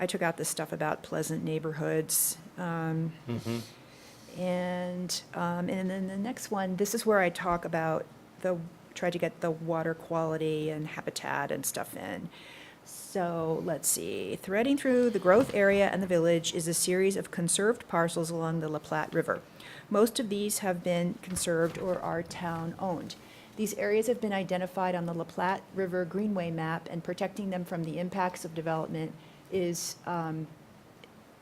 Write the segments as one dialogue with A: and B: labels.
A: I took out the stuff about pleasant neighborhoods. um, And, um, and then the next one, this is where I talk about the, try to get the water quality and habitat and stuff in. So let's see, threading through the growth area and the village is a series of conserved parcels along the La Platte River. Most of these have been conserved or are town-owned. These areas have been identified on the La Platte River Greenway map, and protecting them from the impacts of development is, um,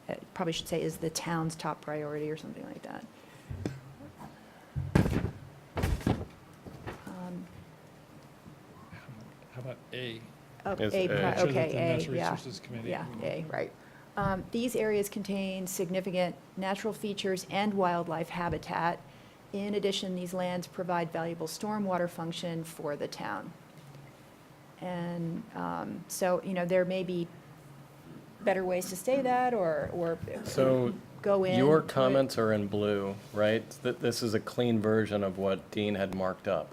A: uh, probably should say is the town's top priority or something like that. Um,
B: How about A?
A: oh,
C: Is
A: A pri-
B: Make
C: A.
B: sure that
A: Okay,
B: the
A: A,
B: Natural
A: yeah.
B: Resources Committee-
A: Yeah, A, right. Um, These areas contain significant natural features and wildlife habitat. In addition, these lands provide valuable stormwater function for the town. And um, so, you know, there may be better ways to say that or, or
C: So
A: go in.
C: your
A: put-
C: comments are in blue, right? That this is a clean version of what Dean had marked up,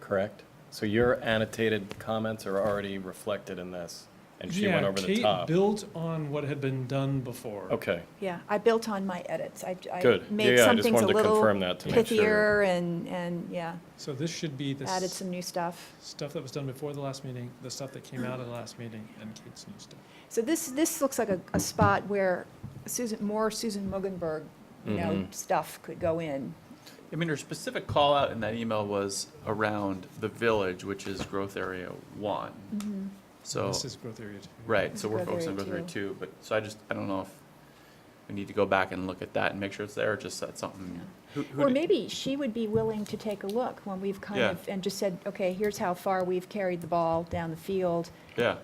C: correct? So your annotated comments are already reflected in this, and she went
B: Yeah,
C: over the
B: Kate
C: top.
B: built on what had been done before.
C: Okay,
A: Yeah, I built on my edits. I I
C: Good. Yeah,
A: made
C: yeah, I
A: some
C: just
A: things a
C: wanted to
A: little
C: confirm that to make sure.
A: pithier and, and, yeah,
B: So this should be the
A: added
B: s-
A: some new stuff.
B: stuff that was done before the last meeting, the stuff that came out of the last meeting, and Kate's new stuff.
A: So this, this looks like a, a spot where Susan, more Susan Muggenberg, you know,
C: Mhm.
A: stuff could go in.
D: I mean, her specific call out in that email was around the village, which is growth area one. So,
B: This is growth area two.
D: right,
A: This
D: so
A: is
D: we're
A: growth
D: focused on
A: area
D: growth area two, but, so I just, I don't know if we need to go back and look at that and make sure it's there, or just that's something. who- who
A: Or
D: did-
A: maybe she would be willing to take a look when we've kind
D: Yeah.
A: of, and just said, okay, here's how far we've carried the ball down the field.
D: Yeah,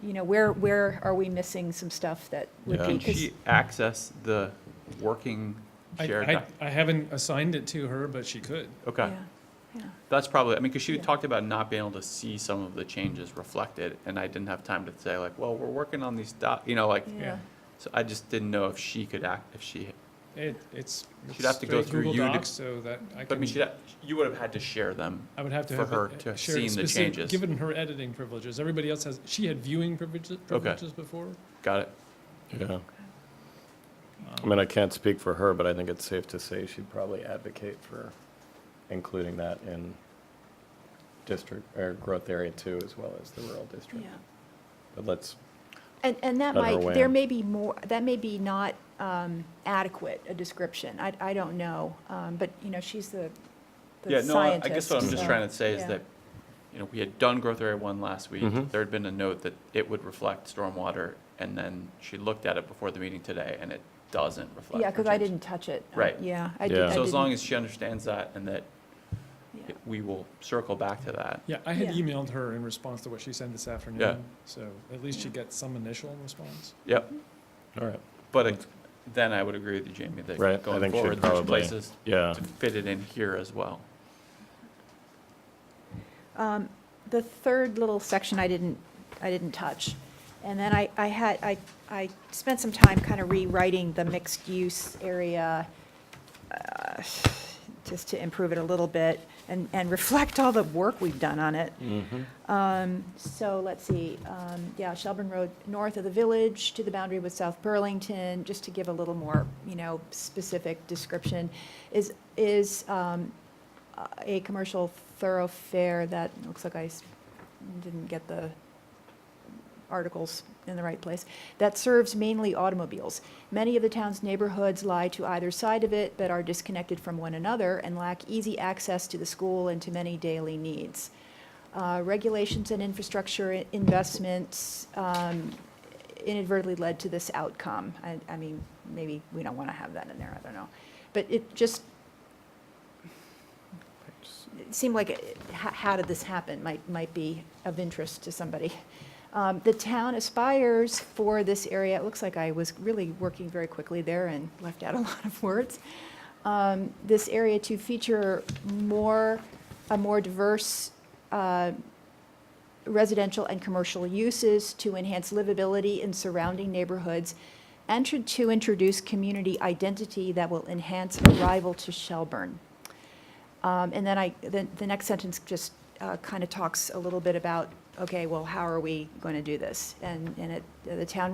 A: You know, where, where are we missing some stuff that would be?
D: can
A: 'cause-
D: she access the working
B: I,
D: shared?
B: I,
D: doc-
B: I haven't assigned it to her, but she could.
D: Okay,
A: yeah, yeah.
D: that's probably, I mean, because she
A: Yeah.
D: talked about not being able to see some of the changes reflected, and I didn't have time to say like, well, we're working on these doc, you know, like,
A: Yeah.
D: so I just didn't know if she could act, if she
B: It, it's.
D: She'd have
B: it's
D: to go
B: straight
D: through
B: Google
D: you to-
B: Docs, So that I
D: But I
B: can,
D: mean, she'd, ha- you would have had to share them.
B: I would have to
D: for
B: have. it,
D: her
B: uh,
D: to have
B: shared
D: seen the
B: specific-
D: changes.
B: Given her editing privileges, everybody else has, she had viewing privileges, privileges before.
D: Got it.
C: yeah.
B: Um,
C: I mean, I can't speak for her, but I think it's safe to say she'd probably advocate for including that in district, or growth area two, as well as the rural district.
A: Yeah.
C: But let's,
A: And, and that
C: Better
A: might,
C: way
A: there
C: in.
A: may be more, that may be not um, adequate a description, I, I don't know. Um, But, you know, she's the the
D: Yeah,
A: scientist.
D: no, I- I guess what I'm just
A: so-
D: trying to say is
A: yeah.
D: that, you know, we had done growth area one last week.
C: Mhm.
D: There had been a note that it would reflect stormwater, and then she looked at it before the meeting today, and it doesn't reflect.
A: Yeah,
D: her
A: because I
D: change.
A: didn't touch it. Uh,
D: Right.
A: Yeah, I did.
C: Yeah.
A: I
D: So as long
A: didn't-
D: as she understands that and that
A: yeah.
D: it- we will circle back to that.
B: Yeah, I had
A: Yeah.
B: emailed her in response to what she sent this afternoon, so at least she gets some initial response.
D: Yep.
C: all right,
D: But it- then I would agree with you, Jamie,
C: Right, I think
D: that going
C: she'd
D: forward, there's
C: probably-
D: places
C: yeah.
D: to fit it in here as well.
A: Um, The third little section I didn't, I didn't touch. And then I, I had, I, I spent some time kind of rewriting the mixed-use area uh, just to improve it a little bit and, and reflect all the work we've done on it.
C: Mm-hmm.
A: Um, So let's see, um, yeah, Shelburne Road, north of the village to the boundary with South Burlington, just to give a little more, you know, specific description, is, is um, a commercial thoroughfare that, looks like I s- didn't get the articles in the right place, that serves mainly automobiles. Many of the town's neighborhoods lie to either side of it, but are disconnected from one another and lack easy access to the school and to many daily needs. Uh, Regulations and infrastructure i- investments um, inadvertently led to this outcome. I, I mean, maybe we don't want to have that in there, I don't know. But it just it seemed like, it- h- how did this happen, might, might be of interest to somebody. Um, The town aspires for this area, it looks like I was really working very quickly there and left out a lot of words. Um, This area to feature more, a more diverse uh, residential and commercial uses to enhance livability in surrounding neighborhoods and to- to introduce community identity that will enhance arrival to Shelburne. Um, And then I, the, the next sentence just uh, kind of talks a little bit about, okay, well, how are we going to do this? And, and it, the town